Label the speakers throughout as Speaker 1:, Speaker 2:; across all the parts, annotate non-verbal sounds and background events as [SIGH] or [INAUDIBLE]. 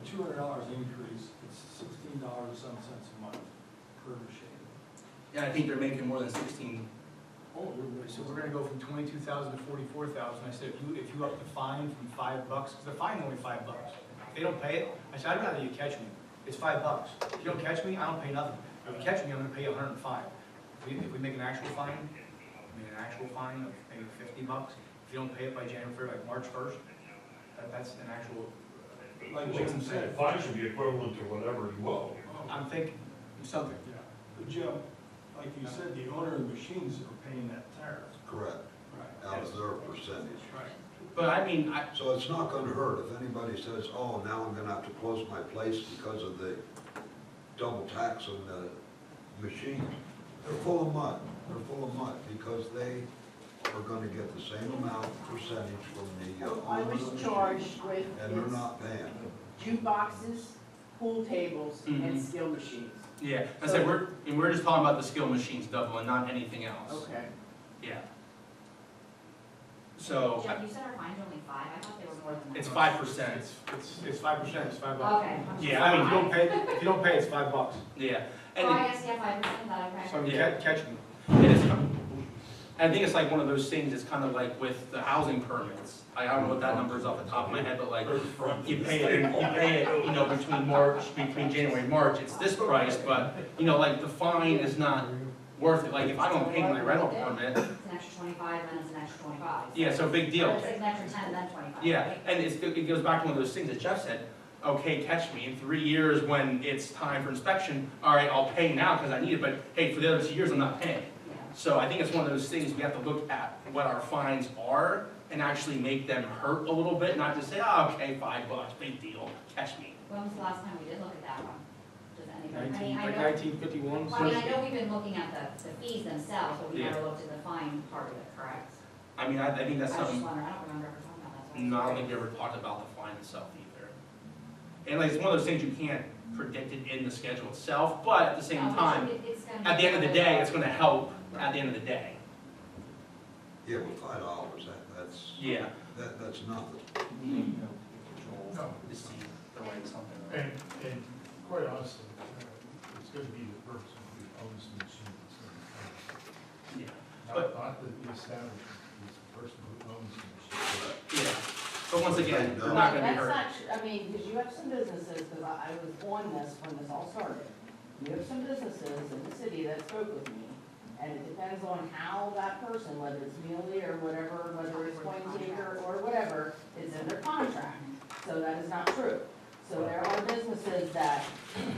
Speaker 1: two hundred dollars increase, it's sixteen dollars and some cents a month per machine.
Speaker 2: And I think they're making more than sixteen.
Speaker 1: Oh,
Speaker 3: So we're gonna go from twenty-two thousand to forty-four thousand, I said, if you, if you up the fine from five bucks, because the fine only five bucks. If they don't pay it, I said, I'd rather you catch me, it's five bucks. If you don't catch me, I don't pay nothing. If you catch me, I'm gonna pay a hundred and five. If we, if we make an actual fine, I mean, an actual fine of maybe fifty bucks, if you don't pay it by January, like March first, that, that's an actual,
Speaker 1: Like
Speaker 4: Like
Speaker 1: Jim
Speaker 4: you said,
Speaker 1: said, Oh,
Speaker 4: fine should be equivalent to whatever you owe.
Speaker 3: I'm thinking, something.
Speaker 1: yeah, but Jim, like you said, the owner of the machines are paying that tariff.
Speaker 5: Correct,
Speaker 1: Right.
Speaker 5: out of their percentage.
Speaker 1: Right.
Speaker 2: But I mean, I,
Speaker 5: So it's not gonna hurt if anybody says, oh, now I'm gonna have to close my place because of the double tax on the machines. They're full of mud, they're full of mud, because they are gonna get the same amount percentage from the uh,
Speaker 6: Oh, I
Speaker 5: owner of the
Speaker 6: was
Speaker 5: machine,
Speaker 6: charged with
Speaker 5: And they're not paying.
Speaker 6: jukeboxes, pool tables,
Speaker 2: Mhm.
Speaker 6: and skill machines.
Speaker 2: yeah, I said, we're, and we're just talking about the skill machines double and not anything else.
Speaker 6: Okay.
Speaker 2: Yeah. So,
Speaker 7: Jim, you said our fine's only five, I thought they were more than that.
Speaker 2: it's five percent,
Speaker 3: It's, it's, it's five percent, it's five bucks.
Speaker 7: Okay.
Speaker 2: Yeah, I mean,
Speaker 3: If you don't pay, if you don't pay, it's five bucks.
Speaker 2: yeah.
Speaker 7: Oh,
Speaker 2: And
Speaker 7: I guess, yeah, five percent, that I
Speaker 3: So
Speaker 7: correct.
Speaker 3: ca-
Speaker 2: Yeah.
Speaker 3: catch me.
Speaker 2: It is, I think it's like one of those things, it's kind of like with the housing permits. I don't know what that number is off the top of my head, but like, you pay it, you pay it, you know, between March, between January and March, it's this price, but, you know, like, the fine is not worth it, like, if I don't pay my rental permit,
Speaker 7: It's an extra twenty-five, then it's an extra twenty-five.
Speaker 2: yeah, so big deal.
Speaker 7: Or it's an extra ten, then twenty-five.
Speaker 2: Yeah, and it's, it goes back to one of those things that Jeff said, okay, catch me in three years when it's time for inspection, all right, I'll pay now because I need it, but hey, for the other two years, I'm not paying.
Speaker 7: Yeah.
Speaker 2: So I think it's one of those things, we have to look at what our fines are and actually make them hurt a little bit, not just say, oh, okay, five bucks, big deal, catch me.
Speaker 7: When was the last time we did look at that one? Does anybody, I mean,
Speaker 3: Nineteen,
Speaker 7: I
Speaker 3: like
Speaker 7: know,
Speaker 3: nineteen fifty-one.
Speaker 7: well, I mean, I know we've been looking at the, the fees themselves, but we
Speaker 2: Yeah.
Speaker 7: never looked at the fine part of it, correct?
Speaker 2: I mean, I, I think that's
Speaker 7: I
Speaker 2: um,
Speaker 7: was just
Speaker 2: something,
Speaker 7: wondering, I don't remember ever talking about that. so I was
Speaker 2: no, I don't
Speaker 7: curious.
Speaker 2: think we ever talked about the fine itself either. And like, it's one of those things you can't predict it in the schedule itself, but at the same
Speaker 7: Um,
Speaker 2: time,
Speaker 7: it- it's gonna
Speaker 2: at the
Speaker 7: be
Speaker 2: end of the
Speaker 7: another-
Speaker 2: day, it's gonna help at the end of the day.
Speaker 5: Yeah, well, five dollars, that, that's,
Speaker 2: Yeah.
Speaker 5: that, that's nothing.
Speaker 4: No.
Speaker 2: Just see the way something.
Speaker 4: And, and quite honestly, uh, it's gonna be the person who owns the machine that's gonna
Speaker 2: Yeah,
Speaker 4: pay. Not, not the the establishment, it's the person who owns the machine.
Speaker 2: yeah. But once again, they're not gonna be
Speaker 6: That's
Speaker 2: hurt.
Speaker 6: not, tr- I mean, because you have some businesses, because I, I was on this when this all started. You have some businesses in the city that spoke with me, and it depends on how that person, whether it's Muley or whatever, whether it's Point Taker or whatever, is in their contract. So that is not true. So there are businesses that,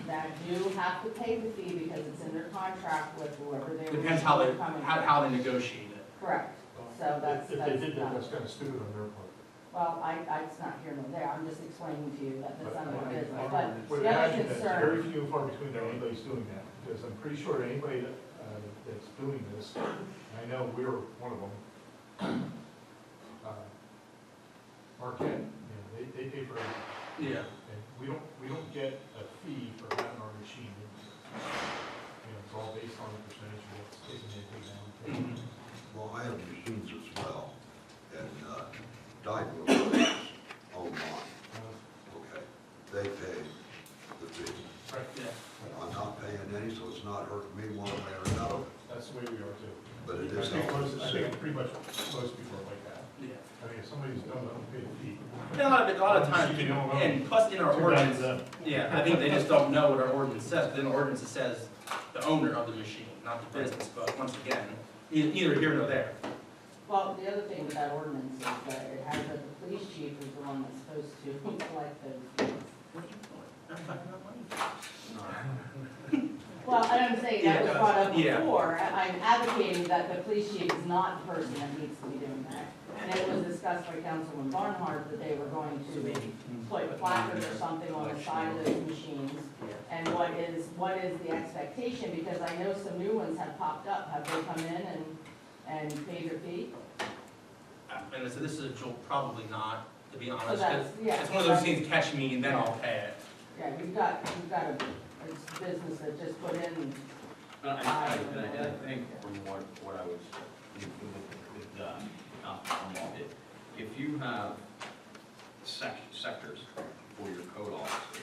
Speaker 6: that do have to pay the fee because it's in their contract with whoever they're.
Speaker 2: Depends how they,
Speaker 6: coming
Speaker 2: how,
Speaker 6: from.
Speaker 2: how they negotiate it.
Speaker 6: Correct. So that's-
Speaker 4: If
Speaker 6: that's
Speaker 4: they did
Speaker 6: not-
Speaker 4: that, that's kinda stupid on their part.
Speaker 6: Well, I, I, it's not here nor there, I'm just explaining to you that that's not my business, but
Speaker 4: Would
Speaker 6: the other
Speaker 4: imagine that it's
Speaker 6: concern,
Speaker 4: very few and far between that anybody's doing that, because I'm pretty sure anybody that, uh, that's doing this, and I know we're one of them. uh, Marquette, you know, they, they pay for everything.
Speaker 2: Yeah.
Speaker 4: And we don't, we don't get a fee for having our machine. in here. You know, it's all based on the percentage of what's taken in, taken out.
Speaker 5: Well, I have machines as well, and, uh, oh, Dyco own mine,
Speaker 4: Uh,
Speaker 5: okay? They pay the fee.
Speaker 4: Right,
Speaker 2: Yeah.
Speaker 5: I'm not paying any, so it's not hurting me one way or another,
Speaker 4: that's the way we are too.
Speaker 5: but it
Speaker 4: I
Speaker 5: is
Speaker 4: think
Speaker 5: helping
Speaker 4: most,
Speaker 5: the
Speaker 4: I
Speaker 5: city.
Speaker 4: think pretty much most people are like that.
Speaker 2: Yeah.
Speaker 4: I mean, if somebody's dumb, don't pay the fee.
Speaker 2: And a lot of, a lot of times,
Speaker 4: You know, well,
Speaker 2: and plus in our
Speaker 4: Too bad it's
Speaker 2: ordinance, uh,
Speaker 4: them.
Speaker 2: yeah, I think they just don't know what our ordinance says. Within our ordinance, it says the owner of the machine, not the business, but once again, e- neither here nor there.
Speaker 6: well, the other thing with that ordinance is that it has that the police chief is the one that's supposed to [LAUGHS] collect those. fees.
Speaker 2: What are you doing? Not talking about money?
Speaker 6: Well, and I'm saying, that was brought up
Speaker 2: Yeah.
Speaker 6: before, I- I'm advocating that the police chief is not the person that needs to be doing that. And it was discussed by Councilman Barnhart that they were going to put placards or something on the side of those machines
Speaker 2: Yeah.
Speaker 6: And what is, what is the expectation, because I know some new ones have popped up, have they come in and, and paid their fee?
Speaker 2: Uh, And so this is a joke, probably not, to be honest.
Speaker 6: So that's, yeah.
Speaker 2: It's one of those things, catch me and then I'll pay it.
Speaker 6: Yeah, you've got, you've got a, a business that just put in,
Speaker 8: But I, I, but I I think from what, what I was, with, with, uh, not from all of it, if you have sec- sectors for your code officers,